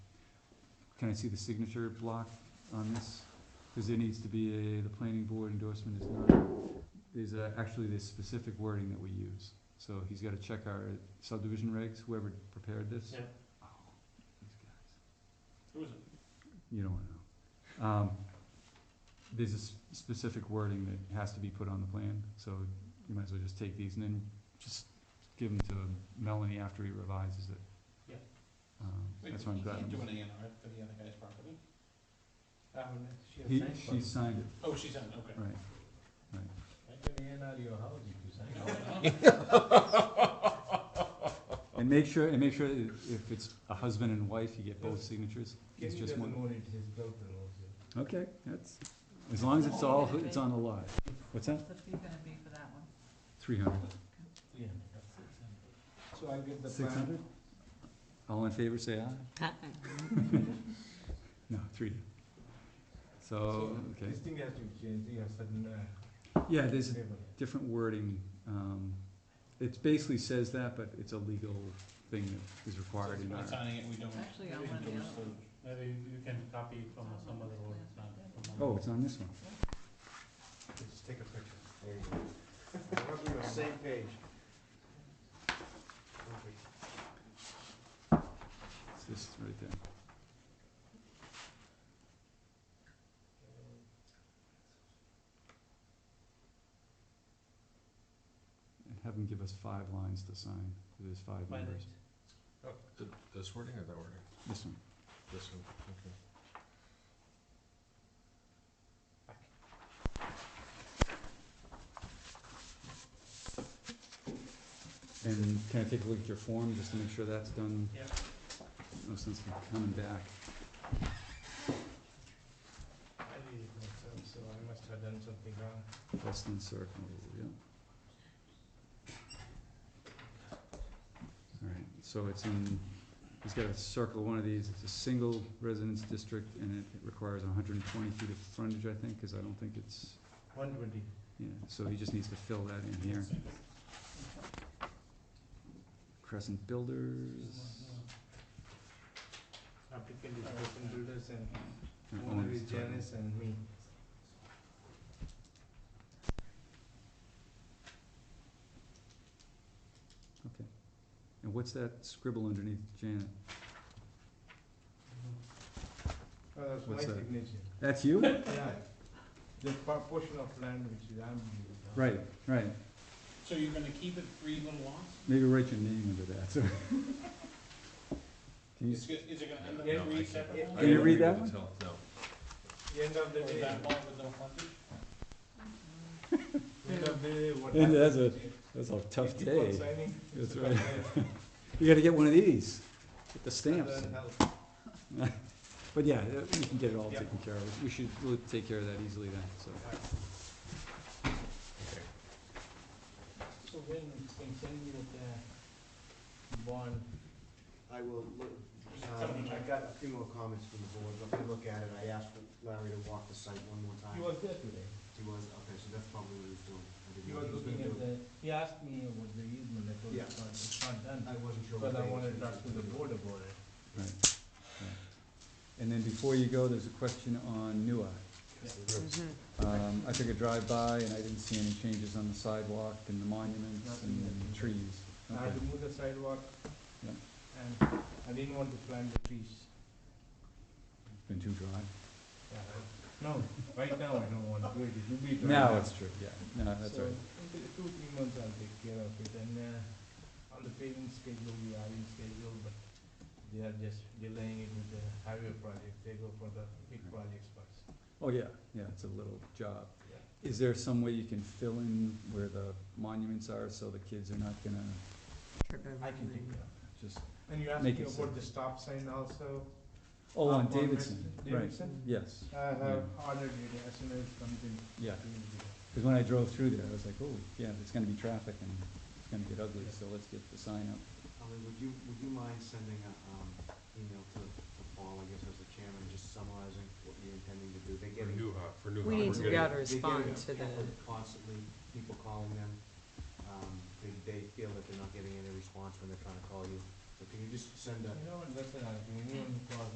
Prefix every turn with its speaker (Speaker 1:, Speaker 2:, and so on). Speaker 1: Can I see the signature block on this? Cause there needs to be a, the planning board endorsement is not, there's a- actually this specific wording that we use. So he's gotta check our subdivision regs, whoever prepared this.
Speaker 2: Yep.
Speaker 1: Oh, these guys.
Speaker 2: Who is it?
Speaker 1: You don't wanna know. Um, there's a s- specific wording that has to be put on the plan, so you might as well just take these and then just give them to Melanie after he revises it.
Speaker 2: Yeah.
Speaker 1: Um, that's what I'm
Speaker 3: You
Speaker 1: glad.
Speaker 3: can't do an A and R for the other guy's property. Uh, when she
Speaker 1: He,
Speaker 3: has
Speaker 1: she
Speaker 3: signed
Speaker 1: signed it,
Speaker 3: for- Oh, she's on, okay.
Speaker 1: right.
Speaker 3: Right, do an A and R to your house, you can sign it.
Speaker 1: And make sure, and make sure i- if it's a husband and wife, you get both signatures. It's just one.
Speaker 3: morning to his built it also.
Speaker 1: Okay, that's, as long as it's all, it's on the lot. What's that?
Speaker 4: What's the fee gonna be for that one?
Speaker 1: Three hundred.
Speaker 3: Yeah. So I get the plan.
Speaker 1: Six hundred? All in favor, say aye. No, three. So, Oh, okay,
Speaker 3: This thing has to change, you have certain, uh,
Speaker 1: yeah, there's
Speaker 3: level.
Speaker 1: different wording, um, it basically says that, but it's a legal thing that is
Speaker 3: So
Speaker 1: required
Speaker 3: if
Speaker 1: in
Speaker 3: we're
Speaker 1: our.
Speaker 3: signing it, we don't.
Speaker 4: Actually, I
Speaker 3: we
Speaker 4: want the
Speaker 3: endorse
Speaker 4: other
Speaker 2: Maybe you can copy from some other one, it's not from
Speaker 1: Oh,
Speaker 2: one.
Speaker 1: it's on this one.
Speaker 3: Just take a picture. There you go. We're on the same page.
Speaker 1: It's this right there. And have them give us five lines to sign, 'cause there's five
Speaker 2: My
Speaker 1: members.
Speaker 3: This wording or that wording?
Speaker 1: This one.
Speaker 3: This one, okay.
Speaker 1: And can I take a look at your form, just to make sure that's done?
Speaker 2: Yeah.
Speaker 1: No sense in coming back.
Speaker 3: I did it myself, so I must have done something wrong.
Speaker 1: Boston Circle, yeah. Alright, so it's in, he's got a circle, one of these, it's a single residence district and it requires hundred and twenty feet of frontage, I think, cause I don't think it's,
Speaker 3: One twenty.
Speaker 1: yeah, so he just needs to fill that in here. Crescent Builders.
Speaker 3: Applicant is Wilson Builders and
Speaker 1: or
Speaker 3: owner
Speaker 1: owner's
Speaker 3: is
Speaker 1: title.
Speaker 3: Janice and me.
Speaker 1: And what's that scribble underneath Janet?
Speaker 3: Oh, that's my
Speaker 1: What's that?
Speaker 3: signature.
Speaker 1: That's you?
Speaker 3: Yeah. The par- portion of land which is I'm.
Speaker 1: Right, right,
Speaker 3: So you're gonna keep it three little lots?
Speaker 1: maybe write your name under that, so. Can you,
Speaker 3: Is it, is it gonna end up
Speaker 2: Yeah,
Speaker 3: being
Speaker 2: no, I
Speaker 3: three
Speaker 2: can't.
Speaker 3: separate lots?
Speaker 1: can you read that one?
Speaker 3: The End of the
Speaker 2: Or
Speaker 3: day.
Speaker 2: that
Speaker 3: lot with no frontage? End
Speaker 4: Mm.
Speaker 3: of the day, what
Speaker 1: And that's
Speaker 3: happens
Speaker 1: a
Speaker 3: is
Speaker 1: That's a
Speaker 3: you keep on signing,
Speaker 1: That's
Speaker 3: it's a
Speaker 1: right.
Speaker 3: bad idea.
Speaker 1: You gotta get one of these, with the stamps.
Speaker 3: Doesn't help.
Speaker 1: But yeah, uh, we can get it all
Speaker 3: Yeah.
Speaker 1: taken care of. We should, we'll take care of that easily then, so.
Speaker 3: So when, when send me the bond.
Speaker 5: I will look, um, I got a few more comments from the board, let me look at it, I asked Larry to walk the site one more time.
Speaker 3: He was there today.
Speaker 5: He was, okay, so that's probably what he was doing. I didn't
Speaker 3: He
Speaker 5: know
Speaker 3: was
Speaker 5: gonna
Speaker 3: looking at
Speaker 5: do it.
Speaker 3: the, he asked me about the easement, I told him
Speaker 5: Yeah.
Speaker 3: it's not, it's not
Speaker 5: I
Speaker 3: done.
Speaker 5: wasn't sure.
Speaker 3: Because
Speaker 5: what
Speaker 3: I
Speaker 5: day
Speaker 3: wanted
Speaker 5: he
Speaker 3: to
Speaker 5: was
Speaker 3: talk to
Speaker 5: gonna
Speaker 3: the
Speaker 5: do it.
Speaker 3: board about it.
Speaker 1: Right, right. And then before you go, there's a question on Nua.
Speaker 4: Mm-hmm.
Speaker 1: Um, I took a drive-by and I didn't see any changes on the sidewalk and the monuments
Speaker 3: Nothing
Speaker 1: and
Speaker 3: yet.
Speaker 1: the trees.
Speaker 3: I had
Speaker 1: Okay.
Speaker 3: to move the sidewalk.
Speaker 1: Yeah.
Speaker 3: And I didn't want to plant the trees.
Speaker 1: Been too dry?
Speaker 3: No, right now I don't want to do it, it will be dry.
Speaker 1: No, it's true, yeah, no, Ah, that's
Speaker 3: So,
Speaker 1: right.
Speaker 3: in the two, three months I'll take care of it and, uh, on the paving schedule, we are in schedule, but they are just delaying it with the highway project, they go for the big
Speaker 1: Right.
Speaker 3: projects first.
Speaker 1: Oh, yeah, yeah, it's a little job.
Speaker 3: Yeah.
Speaker 1: Is there some way you can fill in where the monuments are so the kids are not gonna
Speaker 3: I can take care of it.
Speaker 1: just,
Speaker 3: And you asked
Speaker 1: Make
Speaker 3: me
Speaker 1: it
Speaker 3: about the stop sign also?
Speaker 1: oh, on
Speaker 3: Up on
Speaker 1: Davidson,
Speaker 3: West-
Speaker 1: right,
Speaker 3: Davidson?
Speaker 1: yes.
Speaker 3: I have ordered it as soon as it comes in.
Speaker 1: Yeah,
Speaker 3: we will do that.
Speaker 1: because when I drove through there, I was like, oh, yeah, there's gonna be traffic and it's gonna get ugly, so let's get the sign up.
Speaker 5: Holly, would you, would you mind sending a, um, email to, to Paul, I guess as the chairman, just summarizing what you're intending to do? They're getting.
Speaker 4: We need to be able to
Speaker 5: They get
Speaker 4: respond
Speaker 5: it
Speaker 4: to the,
Speaker 5: Constantly, people calling them, um, they, they feel that they're not getting any response when they're trying to call you. So can you just send a,
Speaker 3: You know what, that's what I'll do, anyone who calls